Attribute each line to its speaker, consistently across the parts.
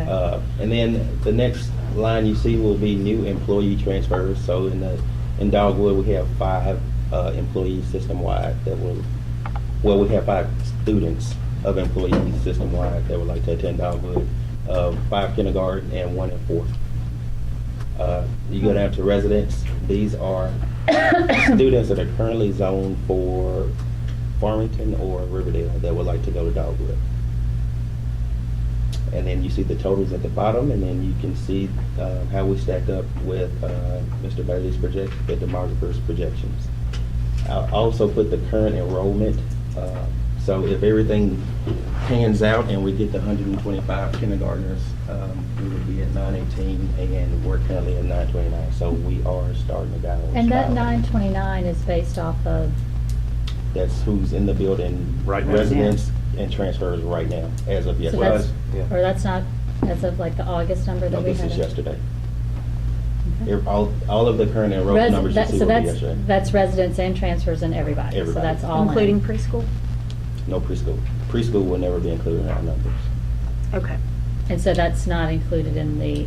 Speaker 1: Uh, And then the next line you see will be new employee transfers. So in the, in Dogwood, we have five uh, employees system-wide that will, well, we have five students of employees system-wide that would like to attend Dogwood, uh, five kindergarten and one in fourth. Uh, You go down to residents, these are students that are currently zoned for Farmington or Riverdale that would like to go to Dogwood. And then you see the totals at the bottom, and then you can see uh, how we stack up with uh, Mr. Bailey's project, the demographer's projections. I'll also put the current enrollment, uh, so if everything pans out and we get the 125 kindergartners, um, we would be at 918, and we're currently at 929, so we are starting to go.
Speaker 2: And that nine twenty-nine is based off of,
Speaker 1: That's who's in the building.
Speaker 3: Right now.
Speaker 1: Residents and transfers right now, as of
Speaker 2: so
Speaker 1: yesterday.
Speaker 2: that's, or that's not, that's of like the August number
Speaker 1: No,
Speaker 2: that we
Speaker 1: this
Speaker 2: had?
Speaker 1: is yesterday.
Speaker 2: Okay.
Speaker 1: Ev- All, all of the current enrollment
Speaker 2: Res-
Speaker 1: numbers you
Speaker 2: that-
Speaker 1: see
Speaker 2: So
Speaker 1: will be
Speaker 2: that's,
Speaker 1: yesterday.
Speaker 2: that's residents and transfers and everybody, so
Speaker 1: Everybody.
Speaker 2: that's all in.
Speaker 4: Including preschool?
Speaker 1: No preschool. Preschool will never be included in our numbers.
Speaker 4: Okay.
Speaker 2: And so that's not included in the,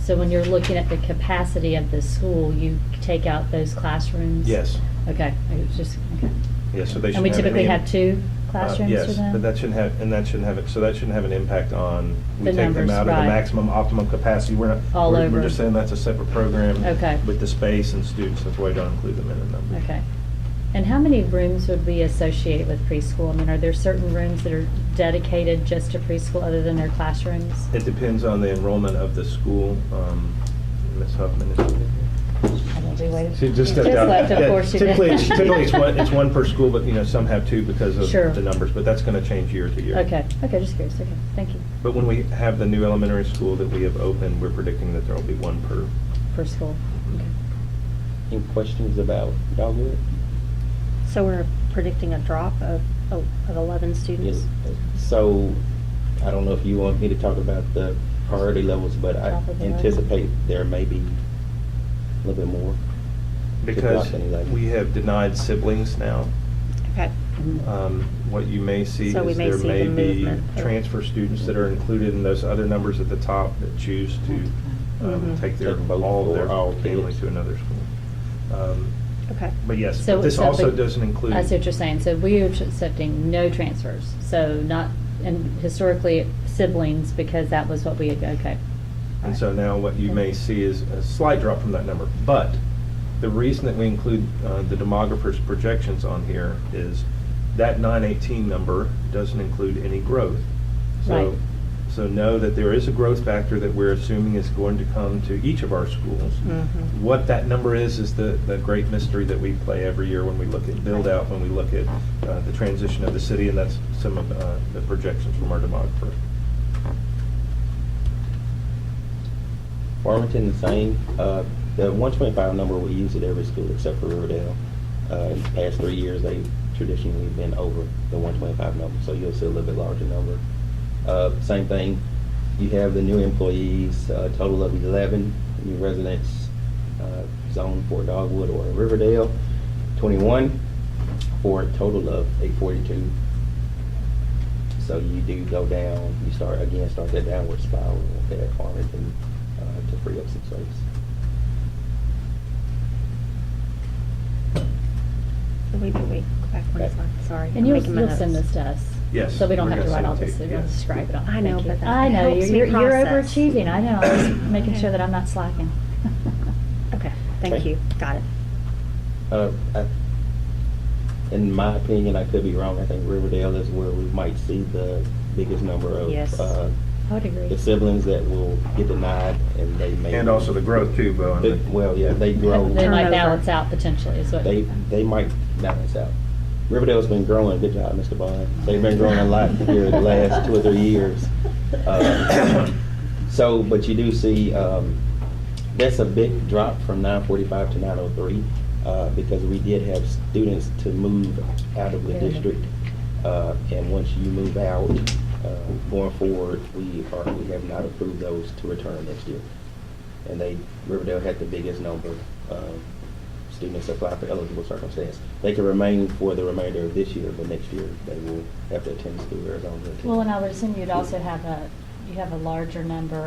Speaker 2: so when you're looking at the capacity of the school, you take out those classrooms?
Speaker 3: Yes,
Speaker 2: Okay, it was just, okay.
Speaker 3: yes, so they
Speaker 2: And
Speaker 3: shouldn't have.
Speaker 2: we typically
Speaker 3: any-
Speaker 2: have two
Speaker 3: uh,
Speaker 2: classrooms for them?
Speaker 3: Yes, but that shouldn't have, and that shouldn't have, it. so that shouldn't have an impact on, we
Speaker 2: The
Speaker 3: take them
Speaker 2: numbers,
Speaker 3: out of the
Speaker 2: right.
Speaker 3: maximum optimum capacity. We're not.
Speaker 2: All
Speaker 3: we're- We're
Speaker 2: over.
Speaker 3: just saying that's a separate program.
Speaker 2: Okay.
Speaker 3: With the space and students, that's why we don't include them in the numbers.
Speaker 2: Okay. And how many rooms would we associate with preschool? I mean, are there certain rooms that are dedicated just to preschool other than their classrooms?
Speaker 3: It depends on the enrollment of the school. Um, Ms. Huffman is. She just stepped out.
Speaker 2: left, of
Speaker 3: Yeah,
Speaker 2: course she did.
Speaker 3: Typically, it's- typically it's one, it's one per school, but, you know, some have two because of
Speaker 2: Sure.
Speaker 3: the numbers, but that's gonna change year to year.
Speaker 2: Okay, okay, just curious, okay, thank you,
Speaker 3: But when we have the new elementary school that we have opened, we're predicting that there'll be one per.
Speaker 2: for school. Okay.
Speaker 1: Any questions about Dogwood?
Speaker 4: So we're predicting a drop of, oh, of 11 students?
Speaker 1: So, I don't know if you want me to talk about the priority levels, but I
Speaker 2: Top of the road.
Speaker 1: anticipate there may be a little bit more.
Speaker 3: Because
Speaker 1: Good luck, anyway.
Speaker 3: we have denied siblings now.
Speaker 4: Okay.
Speaker 3: Um, What you may see is
Speaker 4: So we may
Speaker 3: there
Speaker 4: see
Speaker 3: may
Speaker 4: the
Speaker 3: be
Speaker 4: movement.
Speaker 3: transfer students that are included in those other numbers at the top that choose to um,
Speaker 4: Mhm.
Speaker 3: take their,
Speaker 1: Take both
Speaker 3: all their
Speaker 1: or all
Speaker 3: family
Speaker 1: kids.
Speaker 3: to another school. Um,
Speaker 4: Okay.
Speaker 3: But yes,
Speaker 2: So-
Speaker 3: but this
Speaker 2: so-
Speaker 3: also
Speaker 2: but-
Speaker 3: doesn't include.
Speaker 2: I see what you're saying, so we are accepting no transfers, so not, and historically siblings, because that was what we, had okay.
Speaker 3: And so now what you may see is a slight drop from that number. But the reason that we include uh, the demographer's projections on here is that 918 number doesn't include any growth. So,
Speaker 2: Right.
Speaker 3: so know that there is a growth factor that we're assuming is going to come to each of our schools.
Speaker 2: Mm-hmm.
Speaker 4: Mhm.
Speaker 3: What that number is, is the, the great mystery that we play every year when we look at build-out, when we look at uh, the transition of the city, and that's some of uh, the projections from our demographer.
Speaker 1: Farmington, the same. Uh, The 125 number, we use at every school except for Riverdale. Uh, In the past three years, they traditionally have been over the 125 number, so you'll see a little bit larger number. Uh, Same thing, you have the new employees, a total of 11 new residents uh, zoned for Dogwood or Riverdale, 21 for a total of 842. So you do go down, you start, again, start that downward spiral at Farmington uh, to free up some space.
Speaker 4: Wait, wait, wait, go back one
Speaker 1: Okay.
Speaker 4: slide, sorry. I'm
Speaker 2: And you'll,
Speaker 4: making my
Speaker 2: you'll send
Speaker 4: notes.
Speaker 2: this to us?
Speaker 3: Yes,
Speaker 2: So we don't
Speaker 3: we're
Speaker 2: have to
Speaker 3: gonna
Speaker 2: write all
Speaker 3: send it
Speaker 2: this,
Speaker 3: to
Speaker 2: we
Speaker 3: you,
Speaker 2: don't
Speaker 3: yes.
Speaker 2: describe it all.
Speaker 4: I know,
Speaker 2: Thank
Speaker 4: but
Speaker 2: you.
Speaker 4: that
Speaker 2: I know,
Speaker 4: helps
Speaker 2: you're,
Speaker 4: me
Speaker 2: you're you're
Speaker 4: process.
Speaker 2: overachieving, I know, I'm just making
Speaker 4: Okay.
Speaker 2: sure that I'm not slacking.
Speaker 4: Okay, thank
Speaker 1: Okay.
Speaker 4: you, got it.
Speaker 1: Uh, I- In my opinion, I could be wrong, I think Riverdale is where we might see the biggest number of
Speaker 4: Yes.
Speaker 1: uh,
Speaker 2: I would agree.
Speaker 1: the siblings that will get denied and they may.
Speaker 3: And also the growth too, Bo. and
Speaker 1: But-
Speaker 3: the-
Speaker 1: Well, yeah, they grow,
Speaker 2: They might
Speaker 4: Turnover.
Speaker 2: balance out potentially, is what.
Speaker 1: they, they might balance out. Riverdale's been growing, good job, Mr. Bond. They've been growing a lot here the last two or three years.
Speaker 3: uh,
Speaker 1: Um, So, but you do see, um, that's a big drop from nine forty-five to nine oh three, uh, because we did have students to move out of the
Speaker 2: Yeah.
Speaker 1: district. Uh, and once you move out, uh, going forward, we are, we have not approved those to return next year. And they, Riverdale had the biggest number of students apply for eligible circumstance. They can remain for the remainder of this year, but next year they will have to attend school Arizona.
Speaker 2: Well, and I would assume you'd also have a, you have a larger number